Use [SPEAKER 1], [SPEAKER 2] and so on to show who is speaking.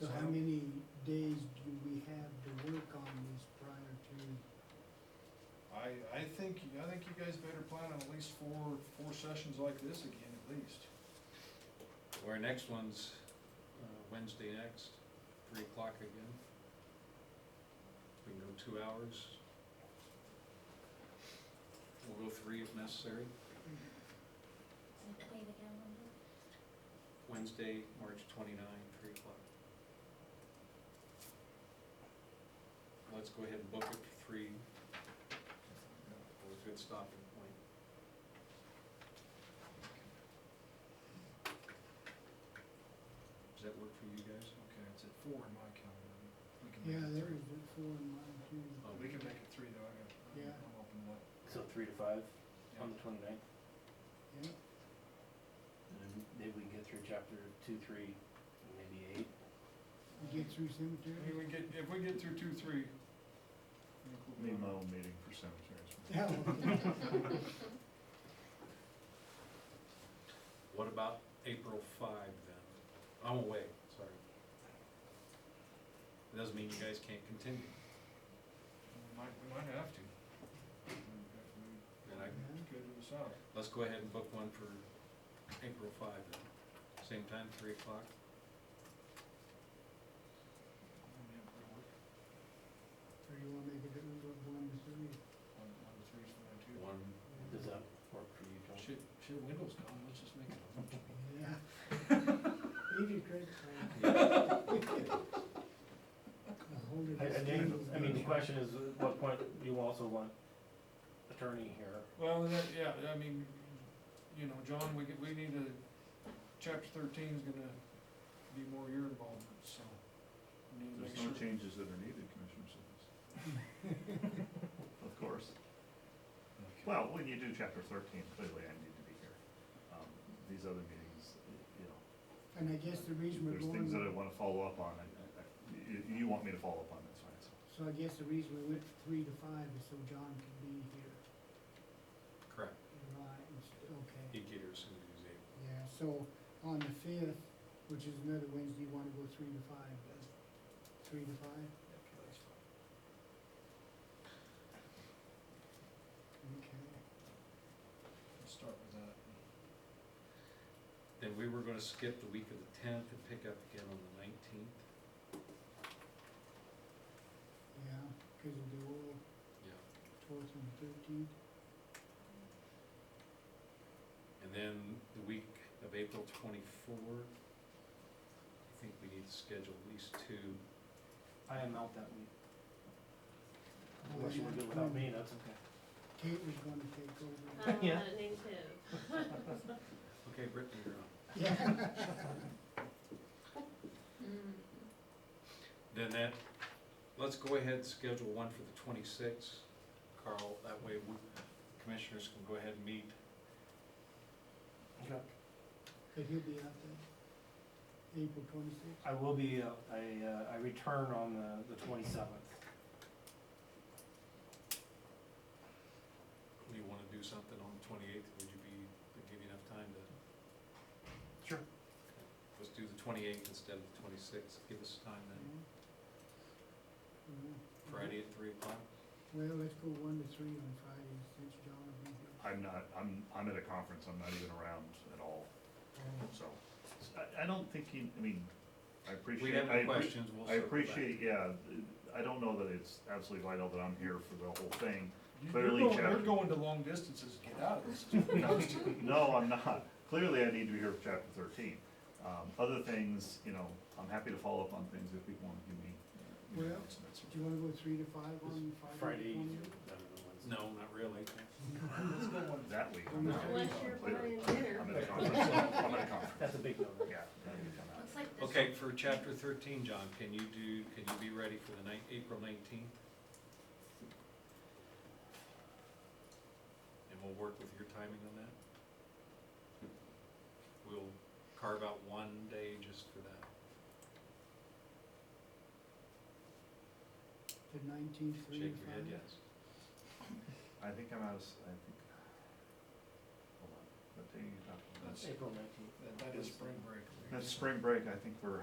[SPEAKER 1] So how many days do we have to work on this prior to,
[SPEAKER 2] I, I think, I think you guys better plan on at least four, four sessions like this again, at least.
[SPEAKER 3] Our next one's uh, Wednesday next, three o'clock again. We can go two hours. We'll go three if necessary.
[SPEAKER 4] Play the calendar.
[SPEAKER 3] Wednesday, March 29, three o'clock. Let's go ahead and book it for three. Or a good stopping point. Does that work for you guys?
[SPEAKER 2] Okay, it's at four in my calendar. We can make
[SPEAKER 1] yeah,
[SPEAKER 2] it
[SPEAKER 1] there
[SPEAKER 2] three.
[SPEAKER 1] is a four in mine too.
[SPEAKER 3] Oh.
[SPEAKER 2] We can make it three though, I got,
[SPEAKER 1] Yeah.
[SPEAKER 2] I'm open up.
[SPEAKER 5] So three to five on
[SPEAKER 2] Yeah.
[SPEAKER 5] the twenty-ninth,
[SPEAKER 1] Yeah,
[SPEAKER 5] and then maybe we can get through chapter two, three, and maybe eight.
[SPEAKER 1] we get through
[SPEAKER 2] I mean,
[SPEAKER 1] cemetery?
[SPEAKER 2] we get, if we get through two, three. I think we'll be
[SPEAKER 6] Need my
[SPEAKER 2] all right.
[SPEAKER 6] own meeting for
[SPEAKER 1] Oh,
[SPEAKER 6] cemeteries.
[SPEAKER 1] Yeah.
[SPEAKER 3] What about April 5 then? I'm away, sorry. It Doesn't mean you guys can't continue.
[SPEAKER 2] We might, we might have to. We-
[SPEAKER 3] And I-
[SPEAKER 2] we Schedule this out.
[SPEAKER 3] Let's go ahead and book one for April 5 then. Same time, 3 o'clock.
[SPEAKER 2] Yeah, that'll work.
[SPEAKER 1] Or you wanna make it a little one to three?
[SPEAKER 2] One, one to three's fine too.
[SPEAKER 3] One,
[SPEAKER 5] Does that work for you, John?
[SPEAKER 2] Shit, shit, Windows gone, let's just make it. a bunch.
[SPEAKER 1] Yeah. Leave your credit card. I'll hold it
[SPEAKER 5] I, I
[SPEAKER 1] as
[SPEAKER 5] mean,
[SPEAKER 1] Daniel's
[SPEAKER 5] I mean, the question
[SPEAKER 1] motion.
[SPEAKER 5] is, at what point do you also want attorney here?
[SPEAKER 2] Well, that, yeah, I mean, you know, John, we, get- we need a, chapter thirteen's gonna be more your involvement, so. we need to make
[SPEAKER 6] There's no
[SPEAKER 2] sure-
[SPEAKER 6] changes that are needed, Commissioner Simmons. Of course. Well, when you do chapter thirteen, clearly I need to be here. Um, These other meetings, you know,
[SPEAKER 1] And I guess the reason we're
[SPEAKER 6] there's things that I
[SPEAKER 1] going,
[SPEAKER 6] wanna follow up on, I- I- you, you want me to follow up on, that's fine, so.
[SPEAKER 1] so I guess the reason we went from three to five is so John could be here.
[SPEAKER 3] correct.
[SPEAKER 1] Right, it's- okay.
[SPEAKER 3] He'd get here as soon as he's able.
[SPEAKER 1] Yeah, so on the fifth, which is another Wednesday, you wanna go three to five, but three to five? Okay.
[SPEAKER 2] Let's start with that.
[SPEAKER 3] Then we were gonna skip the week of the 10th and pick up again on the 19th.
[SPEAKER 1] Yeah, cause of the oil,
[SPEAKER 3] Yeah.
[SPEAKER 1] twelfth and thirteenth.
[SPEAKER 3] And then the week of April 24, I think we need to schedule at least two.
[SPEAKER 5] I am out that week.
[SPEAKER 2] Oh,
[SPEAKER 5] Unless you want to do it without me, that's okay.
[SPEAKER 1] Kate was gonna take over.
[SPEAKER 7] I'm
[SPEAKER 5] Yeah.
[SPEAKER 7] not a
[SPEAKER 4] Uh,
[SPEAKER 7] native.
[SPEAKER 3] Okay, Brittany, you're on.
[SPEAKER 1] Yeah,
[SPEAKER 3] Then that, let's go ahead and schedule one for the 26th, Carl, that way we- commissioners can go ahead and meet.
[SPEAKER 5] Okay.
[SPEAKER 1] but he'll be out there, April twenty-sixth.
[SPEAKER 5] I will be, uh, I, uh, I return on the, the twenty-seventh.
[SPEAKER 3] Do you want to do something on the 28th? Would you be, would give you enough time to,
[SPEAKER 5] Sure.
[SPEAKER 3] let's do the 28th instead of the 26th. Give us time then, Friday at 3 o'clock.
[SPEAKER 1] Well, let's go one to three on Friday since John will be here.
[SPEAKER 6] I'm not, I'm, I'm at a conference, I'm not even around at all,
[SPEAKER 1] Oh,
[SPEAKER 6] so. S- I, I don't think you, I mean, I appreciate.
[SPEAKER 3] We have
[SPEAKER 6] I
[SPEAKER 3] no
[SPEAKER 6] appre-
[SPEAKER 3] questions, we'll
[SPEAKER 6] I
[SPEAKER 3] circle back.
[SPEAKER 6] appreciate, yeah, I don't know that it's absolutely vital that I'm here for the whole thing.
[SPEAKER 2] You- You're
[SPEAKER 6] Clearly,
[SPEAKER 2] going,
[SPEAKER 6] chapter-
[SPEAKER 2] you're going to long distances, to get out of this. Well,
[SPEAKER 6] No, I'm not. Clearly, I need to be here for chapter thirteen. Um, other things, you know, I'm happy to follow up on things if people want to give me. you know,
[SPEAKER 1] Well,
[SPEAKER 6] estimates.
[SPEAKER 1] Do you wanna go three to five on Friday?
[SPEAKER 5] Friday, I
[SPEAKER 1] the
[SPEAKER 5] don't
[SPEAKER 1] 20th?
[SPEAKER 5] know, Wednesday.
[SPEAKER 3] No, not really.
[SPEAKER 6] That week.
[SPEAKER 1] I'm not-
[SPEAKER 7] Unless you're buying dinner.
[SPEAKER 6] I'm at a conference, I'm at a conference,
[SPEAKER 5] That's a big number.
[SPEAKER 6] yeah. I need to come out.
[SPEAKER 4] Looks like this.
[SPEAKER 3] Okay, for chapter 13, John, can you do, can you be ready for the night, April 19th? And we'll work with your timing on that. We'll carve out one day just for that.
[SPEAKER 1] The nineteenth, three to
[SPEAKER 3] Shake
[SPEAKER 1] five?
[SPEAKER 3] your head, yes.
[SPEAKER 6] I think I'm out of, s- I think, hold on, what day are you talking about?
[SPEAKER 2] That's-
[SPEAKER 5] April nineteenth.
[SPEAKER 2] That, that is spring break.
[SPEAKER 6] That's spring break, I think we're